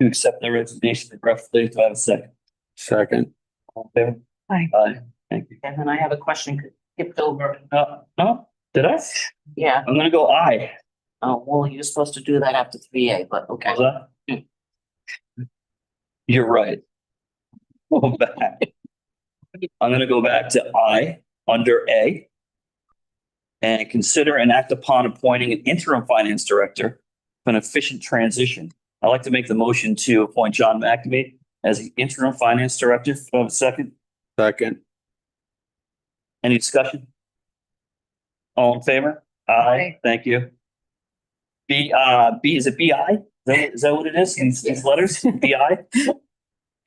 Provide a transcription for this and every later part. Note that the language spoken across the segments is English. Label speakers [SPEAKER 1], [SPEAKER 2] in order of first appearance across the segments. [SPEAKER 1] to accept the resignation of Brett Flea. Do I have a second?
[SPEAKER 2] Second.
[SPEAKER 1] All in favor?
[SPEAKER 3] Aye.
[SPEAKER 1] Aye, thank you.
[SPEAKER 4] And then I have a question skipped over.
[SPEAKER 1] Uh, no, did I?
[SPEAKER 4] Yeah,
[SPEAKER 1] I'm gonna go aye.
[SPEAKER 4] oh, well, you're supposed to do that after three A, but okay.
[SPEAKER 1] Was I? You're right. Go back. I'm gonna go back to I, under A. And consider and act upon appointing an interim finance director for an efficient transition. I'd like to make the motion to appoint John McAfee as the interim finance director. Do I have a second?
[SPEAKER 2] Second.
[SPEAKER 1] Any discussion? All in favor? Aye,
[SPEAKER 3] Aye.
[SPEAKER 1] thank you. B, uh, B, is it B I? Is that- Is that what it is? These, these letters, B I?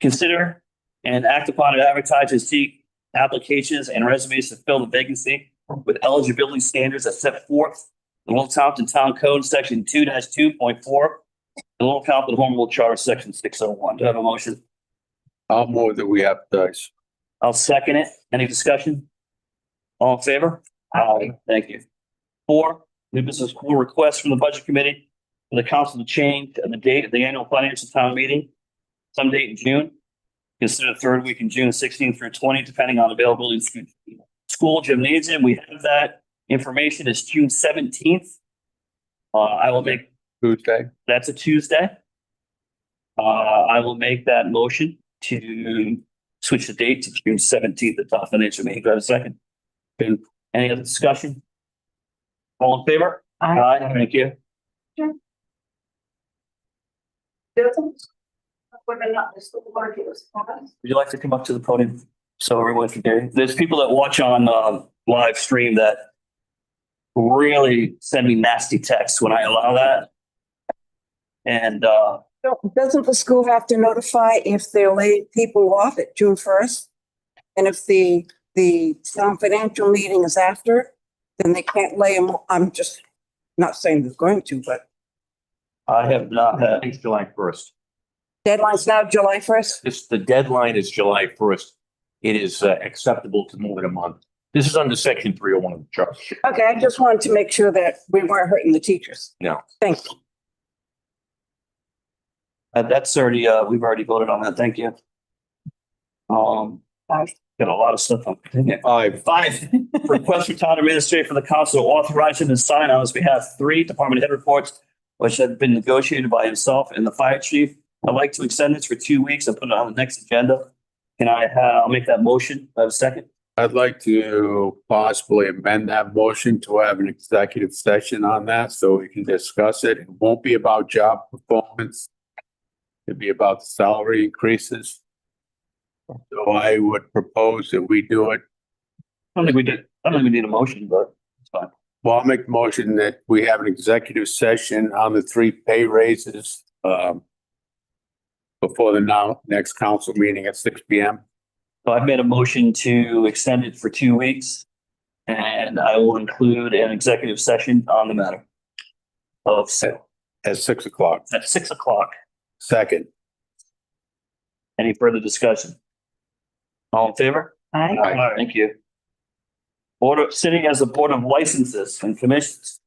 [SPEAKER 1] Consider and act upon it advertise and seek applications and resumes to fill the vacancy with eligibility standards as set forth in Little Compton Town Code, section two two point four, and Little Compton Home Rule Charter, section six oh one. Do I have a motion?
[SPEAKER 2] I'll move that we advertise.
[SPEAKER 1] I'll second it. Any discussion? All in favor? Aye. Thank you. Four, new business school request from the budget committee for the council to change the date of the annual financial town meeting. Some date in June. Consider the third week in June, sixteen through twenty, depending on availability of stu- school gymnasium. We have that information is June seventeenth. Uh, I will make,
[SPEAKER 2] Tuesday.
[SPEAKER 1] that's a Tuesday. Uh, I will make that motion to switch the date to June seventeenth at the financial meeting. Do I have a second?
[SPEAKER 2] And
[SPEAKER 1] Any other discussion? All in favor?
[SPEAKER 3] Aye.
[SPEAKER 1] Thank you. Would you like to come up to the podium? So everyone can hear. you? There's people that watch on um live stream that really send me nasty texts when I allow that. And uh,
[SPEAKER 5] No, Doesn't the school have to notify if they're laying people off at June first? And if the, the town financial meeting is after, then they can't lay them, I'm just not saying they're going to, but
[SPEAKER 1] I have not had,
[SPEAKER 6] It's July first.
[SPEAKER 5] deadline's now July first.
[SPEAKER 6] This, the deadline is July first. It is uh, acceptable to move it a month. This is under section three oh one of the charter.
[SPEAKER 5] Okay, I just wanted to make sure that we weren't hurting the teachers.
[SPEAKER 6] No.
[SPEAKER 5] Thanks.
[SPEAKER 1] uh, that's already, uh, we've already voted on that. Thank you. Um, I've got a lot of stuff on.
[SPEAKER 2] I've
[SPEAKER 1] Five, request for town administrator for the council to authorize him to sign on his behalf three department head reports, which have been negotiated by himself and the fire chief. I'd like to extend this for two weeks and put it on the next agenda. Can I, uh, I'll make that motion. I have a second.
[SPEAKER 2] I'd like to possibly amend that motion to have an executive session on that so we can discuss it. It won't be about job performance. It'd be about salary increases. So I would propose that we do it.
[SPEAKER 1] I don't think we did, I don't think we need a motion, but it's fine.
[SPEAKER 2] Well, I'll make the motion that we have an executive session on the three pay raises, um, before the now, next council meeting at six P M.
[SPEAKER 1] So I've made a motion to extend it for two weeks. And I will include an executive session on the matter of, so,
[SPEAKER 2] at six o'clock.
[SPEAKER 1] at six o'clock.
[SPEAKER 2] Second.
[SPEAKER 1] Any further discussion? All in favor?
[SPEAKER 3] Aye.
[SPEAKER 2] Aye.
[SPEAKER 1] Thank you. Board of, sitting as a board of licenses and commissions.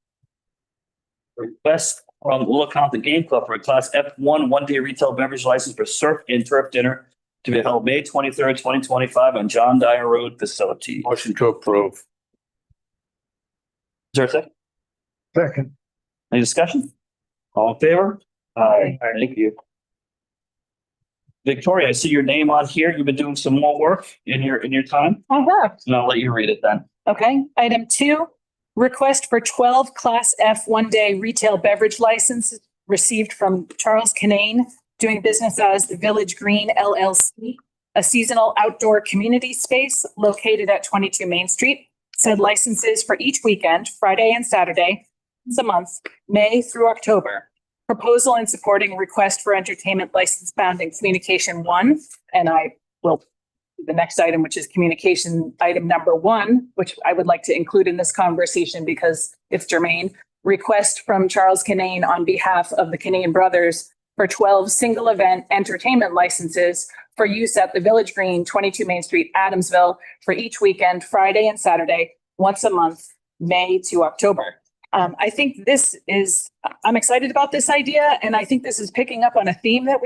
[SPEAKER 1] Request from Little Compton Game Club for a class F one, one day retail beverage license for surf and turf dinner to be held May twenty-third, twenty twenty-five on John Dyer Road facility. Is
[SPEAKER 2] Motion to approve.
[SPEAKER 1] there a second? Second. Any discussion? All in favor? Aye. Thank you. Victoria, I see your name on here. You've been doing some more work in your, in your time,
[SPEAKER 3] I have.
[SPEAKER 1] and I'll let you read it then.
[SPEAKER 3] Okay, item two, request for twelve Class F one-day retail beverage licenses received from Charles Canane, doing business as the Village Green LLC, a seasonal outdoor community space located at twenty-two Main Street. Said licenses for each weekend, Friday and Saturday, once a month, May through October. Proposal and supporting request for entertainment license found in Communication One, and I the next item, which is communication item number one, which I would like to include in this conversation because it's germane. Request from Charles Canane on behalf of the Canane Brothers for twelve single event entertainment licenses for use at the Village Green, twenty-two Main Street, Adamsville, for each weekend, Friday and Saturday, once a month, May to October. Um, I think this is, I'm excited about this idea, and I think this is picking up on a theme that we.